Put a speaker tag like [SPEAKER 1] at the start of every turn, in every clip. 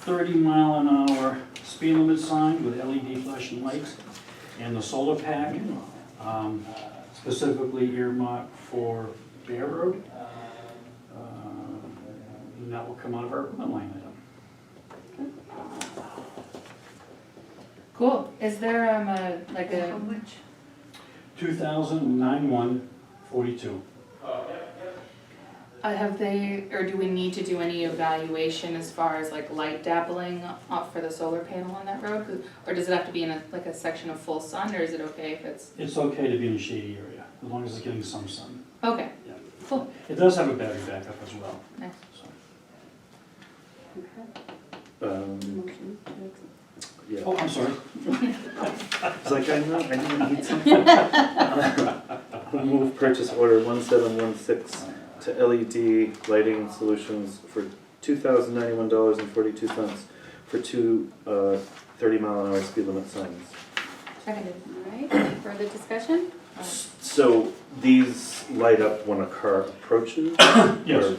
[SPEAKER 1] 30 mile an hour speed limit sign with LED flashing lights and the solar pack, um, specifically earmarked for Bear Road. Uh, And that will come out of our equipment line item.
[SPEAKER 2] Cool. Is there um a like
[SPEAKER 3] How
[SPEAKER 2] a
[SPEAKER 3] much?
[SPEAKER 1] 2009-142.
[SPEAKER 2] uh, have they or do we need to do any evaluation as far as like light dabbling off for the solar panel on that road? 'Cause- Or does it have to be in a like a section of full sun, or is it okay if it's
[SPEAKER 1] It's okay to be in a shady area, as long as it's getting some sun.
[SPEAKER 2] okay?
[SPEAKER 1] Yeah.
[SPEAKER 2] Cool.
[SPEAKER 1] It does have a battery backup as well,
[SPEAKER 2] Nice.
[SPEAKER 1] so.
[SPEAKER 3] Okay,
[SPEAKER 4] Um,
[SPEAKER 3] motion to accept.
[SPEAKER 4] yeah,
[SPEAKER 1] Oh, I'm sorry.
[SPEAKER 4] it's like, I'm not, I didn't need something. I'll Move purchase order one seven one six to LED lighting solutions for two thousand ninety-one dollars and forty-two cents for two, uh, thirty mile an hour speed limit signs.
[SPEAKER 2] Seconded.
[SPEAKER 3] All right, any further discussion?
[SPEAKER 4] So these light up when a car approaches? Um,
[SPEAKER 1] Yes.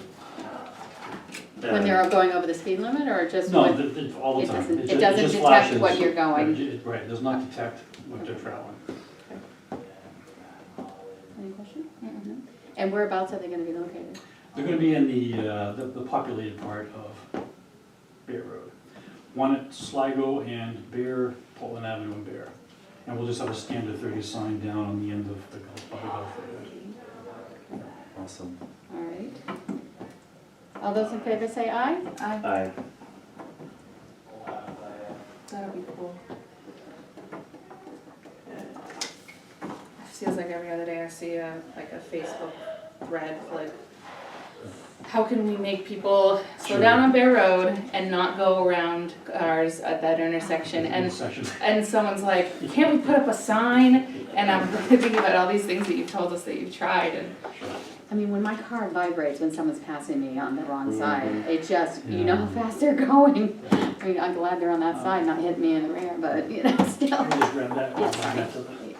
[SPEAKER 3] When they're going over the speed limit or just
[SPEAKER 1] Uh, No,
[SPEAKER 3] when?
[SPEAKER 1] th- th- all the
[SPEAKER 3] It
[SPEAKER 1] time.
[SPEAKER 3] doesn't-
[SPEAKER 1] ju-
[SPEAKER 3] it doesn't
[SPEAKER 1] just
[SPEAKER 3] detect
[SPEAKER 1] flashes.
[SPEAKER 3] what you're going.
[SPEAKER 1] Right, it- Right, it does not detect what you're traveling.
[SPEAKER 3] Any question?
[SPEAKER 2] Mm-mm.
[SPEAKER 3] And whereabouts are they gonna be located?
[SPEAKER 1] They're gonna be in the, uh, the the populated part of Bear Road. One at Sligo and Bear, Portland Avenue and Bear. And we'll just have a standard thirty sign down on the end of the golf, by the golf area.
[SPEAKER 4] Awesome.
[SPEAKER 3] All right. All those in favor say aye?
[SPEAKER 2] Aye.
[SPEAKER 4] Aye.
[SPEAKER 2] That'll be cool. Feels like every other day I see a, like a Facebook thread, like, how can we make people slow
[SPEAKER 1] Sure.
[SPEAKER 2] down on Bear Road and not go around cars at that intersection? And,
[SPEAKER 1] Intersection.
[SPEAKER 2] and someone's like, can't we put up a sign? And I'm thinking about all these things that you've told us that you've tried and,
[SPEAKER 3] I mean, when my car vibrates when someone's passing me on the
[SPEAKER 1] Mm-hmm.
[SPEAKER 3] wrong side,
[SPEAKER 4] Mhm.
[SPEAKER 3] it just, you know how fast they're going. I mean, I'm glad they're on
[SPEAKER 1] Uh.
[SPEAKER 3] that side, not hitting me in the rear, but, you know, still.
[SPEAKER 1] I'll just grab that.
[SPEAKER 3] Yes,
[SPEAKER 1] Back
[SPEAKER 3] sorry.
[SPEAKER 1] to the-
[SPEAKER 3] There you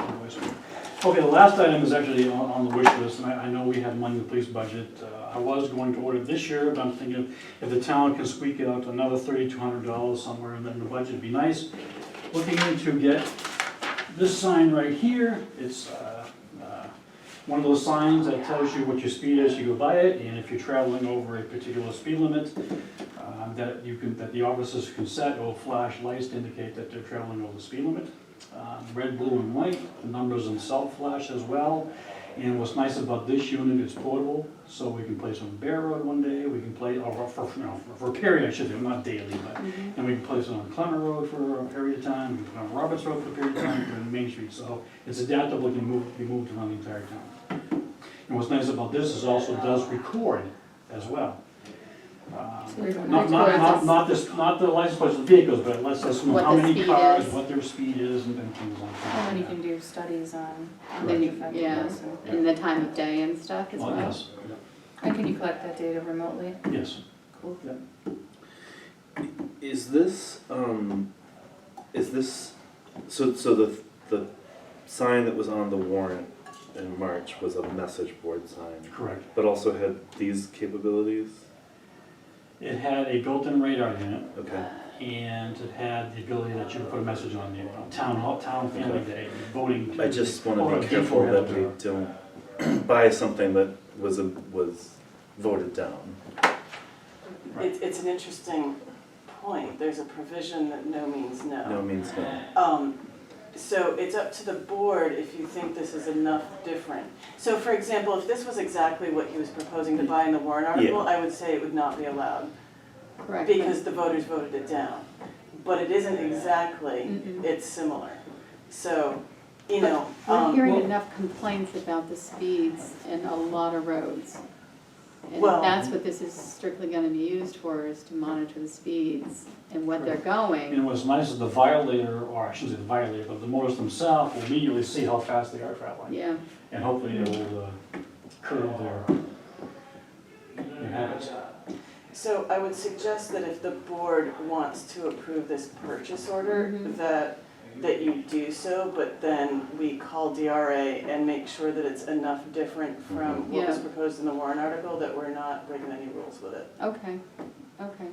[SPEAKER 3] go.
[SPEAKER 1] Okay, the last item is actually on, on the wish list, and I, I know we have money in the police budget. Uh, I was going to order this year, but I'm thinking if the town can squeak out another thirty-two hundred dollars somewhere in the in the budget, it'd be nice. Looking into get this sign right here, it's, uh, uh, one of those signs that tells you what your speed is, you go by it, and if you're traveling over a particular speed limit, uh, that you can, that the officers can set, or flash lights to indicate that they're traveling over the speed limit um, red, blue, and white, the numbers in salt flash as well. And what's nice about this unit, it's portable, so we can play some Bear Road one day, we can play, or for, you know, for a period, I should say, not daily, but, and we can place it on Clement Road for a period of time, we can put it on Roberts Road for a period of time, and on Main Street, so it's adaptable, it can move, be moved around the entire town. And what's nice about this is also it does record as well. Um,
[SPEAKER 2] we don't
[SPEAKER 1] not,
[SPEAKER 2] have
[SPEAKER 1] not,
[SPEAKER 2] to go out
[SPEAKER 1] not,
[SPEAKER 2] this-
[SPEAKER 1] not this, not the license plates of vehicles, but it lets us know
[SPEAKER 3] What
[SPEAKER 1] how
[SPEAKER 3] the
[SPEAKER 1] many
[SPEAKER 3] speed
[SPEAKER 1] cars,
[SPEAKER 3] is.
[SPEAKER 1] what their speed is and and things like that.
[SPEAKER 2] and then you can do studies on, on
[SPEAKER 3] Then
[SPEAKER 2] the
[SPEAKER 3] you-
[SPEAKER 2] effect
[SPEAKER 3] yeah.
[SPEAKER 2] of this. and-
[SPEAKER 3] And the time of day and stuff as
[SPEAKER 1] Well,
[SPEAKER 3] well.
[SPEAKER 1] yes,
[SPEAKER 2] And can you collect that data remotely?
[SPEAKER 1] yes.
[SPEAKER 2] Cool.
[SPEAKER 4] Is this, um, is this, so, so the, the sign that was on the warrant in March was a message board sign,
[SPEAKER 1] Correct.
[SPEAKER 4] but also had these capabilities?
[SPEAKER 1] It had a built-in radar in it,
[SPEAKER 4] Okay,
[SPEAKER 1] and it had the ability that you could put a message on the, on town hall, town family day, voting.
[SPEAKER 4] I just
[SPEAKER 1] Or
[SPEAKER 4] wanna
[SPEAKER 1] a
[SPEAKER 4] be careful that we
[SPEAKER 1] default.
[SPEAKER 4] don't buy something that was, a- was voted down.
[SPEAKER 5] It's, it's an interesting point. There's a provision that no means
[SPEAKER 4] No means no.
[SPEAKER 5] Um, so it's up to the board if you think this is enough different. So for example, if this was exactly what he was proposing to buy in the warrant article, I would say it would not be allowed
[SPEAKER 3] Correct.
[SPEAKER 5] because the voters voted it down. But it isn't exactly,
[SPEAKER 3] Mm-mm.
[SPEAKER 5] it's similar. So, you
[SPEAKER 3] But
[SPEAKER 5] know,
[SPEAKER 3] We're
[SPEAKER 5] um,
[SPEAKER 3] hearing
[SPEAKER 1] well-
[SPEAKER 3] enough complaints about the speeds in a lot of roads. And
[SPEAKER 5] Well-
[SPEAKER 3] that's what this is strictly gonna be used for, is to monitor the speeds and what they're going.
[SPEAKER 1] And what's nice is the violator, or I shouldn't say the violator, but the motorists themselves will immediately see how fast they are traveling.
[SPEAKER 3] Yeah,
[SPEAKER 1] And hopefully they will uh, curb their, their habits.
[SPEAKER 5] so I would suggest that if the board wants to approve this purchase order,
[SPEAKER 3] Mhm.
[SPEAKER 5] that, that you do so, but then we call DRA and make sure that it's enough different from what was
[SPEAKER 3] Yeah.
[SPEAKER 5] proposed in the Warren article, that we're not breaking any rules with it.
[SPEAKER 3] okay, okay.